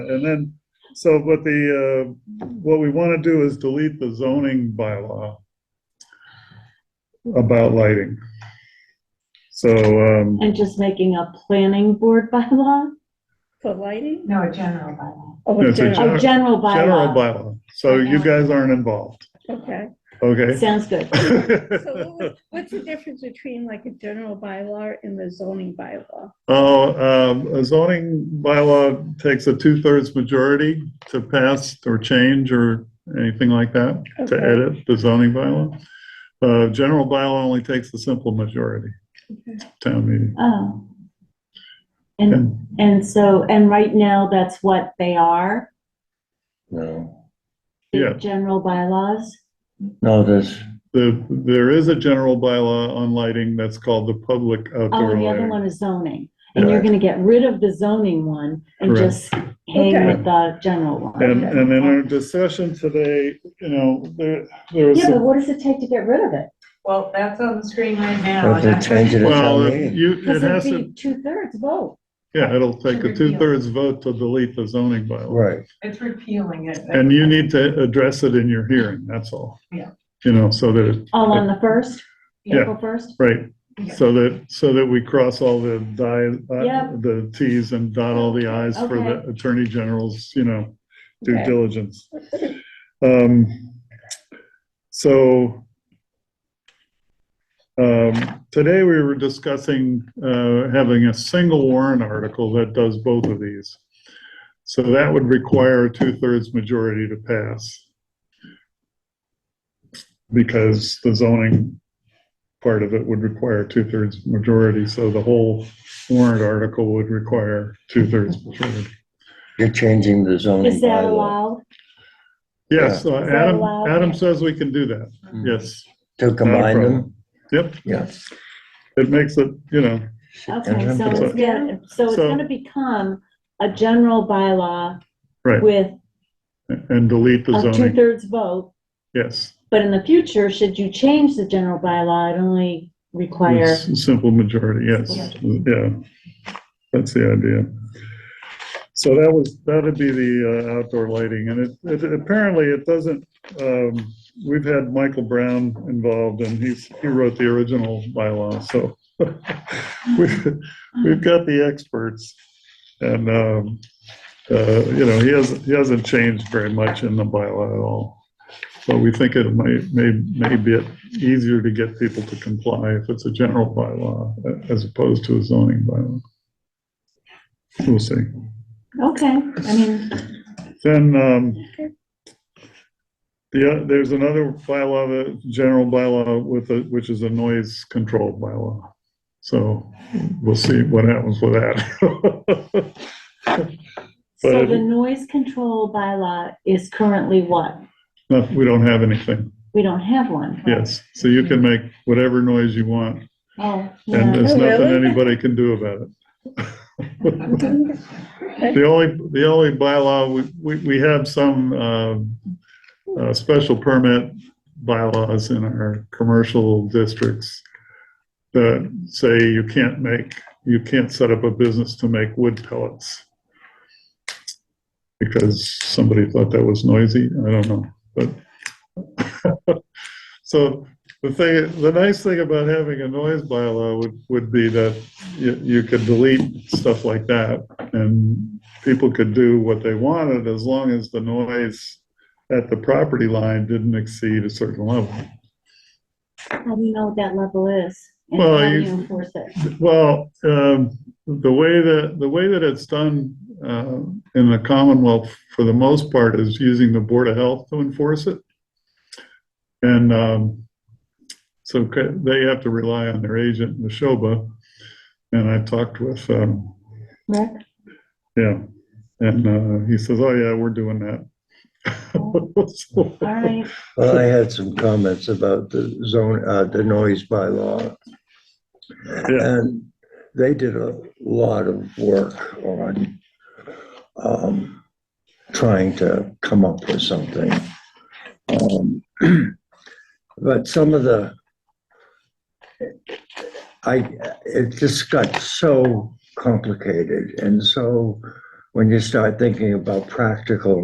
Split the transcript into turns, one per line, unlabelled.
And then, so what the, uh, what we want to do is delete the zoning bylaw about lighting. So, um,
And just making a planning board bylaw?
For lighting?
No, a general bylaw.
Oh,
Yes, a
general,
Oh, general
general
bylaw.
bylaw. So you guys aren't involved,
okay.
okay?
Sounds good.
So what would- what's the difference between like a general bylaw and the zoning bylaw?
Oh, um, a zoning bylaw takes a two-thirds majority to pass or change or anything like that, to
Okay.
edit the zoning bylaw. Uh, general bylaw only takes a simple majority, town meeting.
Oh. And,
And
and so, and right now, that's what they are?
No,
the
Yeah.
General bylaws?
no, there's,
the, there is a general bylaw on lighting that's called the public
Oh,
outdoor
and the other
lighting.
one is zoning. And you're gonna get rid of the zoning one and
Correct.
just hang
Okay.
with the general one.
And, and in our discussion today, you know, there, there was
Yeah,
some
but what does it take to get rid of it?
Well, that's on the screen right now.
but they
and
change it at town
Well, if
meeting.
you, it has
Because it'd
to,
be two-thirds vote.
yeah, it'll take
To
a
repeal.
two-thirds vote to delete the zoning bylaw.
Right,
It's repealing it.
And you need to address it in your hearing, that's all.
Yeah.
You know, so that, it-
Oh, on the first?
Yeah.
April first?
right,
Yeah.
so that, so that we cross all the di, uh,
Yep.
the Ts and dot all the Is for the
Okay.
Attorney General's, you know, due
Okay.
diligence. Um, So, um, today we were discussing, uh, having a single warrant article that does both of these. So that would require a two-thirds majority to pass. Because the zoning part of it would require two-thirds majority, so the whole warrant article would require two-thirds majority.
you're changing the zoning
Is that
bylaw
allowed?
Yes, uh,
that
Adam,
allowed?
Adam says we can do that, yes.
to Mm. combine them?
Yep,
Yes.
it makes it, you know,
Okay, so
So-
it's gonna, so it's
so-
gonna become a general bylaw
right,
with
and delete the
a
zoning,
two-thirds vote.
yes.
But in the future, should you change the general bylaw, it only require
It's a Simple majority, yes, yeah, that's the idea. So that was, that'd be the uh, outdoor lighting, and it, it, apparently it doesn't, um, we've had Michael Brown involved, and he's, he wrote the original bylaw, so. We've, we've got the experts, and, um, uh, you know, he hasn't, he hasn't changed very much in the bylaw at all. But we think it may, may, may be easier to get people to comply if it's a general bylaw uh, as opposed to a zoning bylaw. We'll see.
Okay, I mean,
Then, um, the, uh, there's another bylaw, the general bylaw with, a- which is a noise control bylaw. So we'll see what happens with that.
so
But-
the noise control bylaw is currently what?
No, We don't have anything.
We don't have one.
Yes. So you can make whatever noise you want
Oh,
and
yeah.
there's
Oh,
nothing
really?
anybody can do about it.
Okay.
The only, the only bylaw, we, we, we have some, uh, uh, special permit bylaws in our commercial districts that say you can't make, you can't set up a business to make wood pellets. Because somebody thought that was noisy, I don't know, but. So the thing, the nice thing about having a noise bylaw would, would be that you, you could delete stuff like that and people could do what they wanted as long as the noise at the property line didn't exceed a certain level.
How do you know what that level is? And
Well,
how do
you-
you enforce it?
Well, um, the way that, the way that it's done, uh, in the Commonwealth for the most part is using the Board of Health to enforce it. And, um, so c- they have to rely on their agent, Neshoba. And I talked with, um,
Rick?
Yeah, and uh, he says, "Oh yeah, we're doing that." So,
All right,
Well, I had some comments about the zone, uh, the noise bylaw. And they did a lot of work on, um, trying to come up with something. Um, But some of the, I, it just got so complicated and so when you start thinking about practical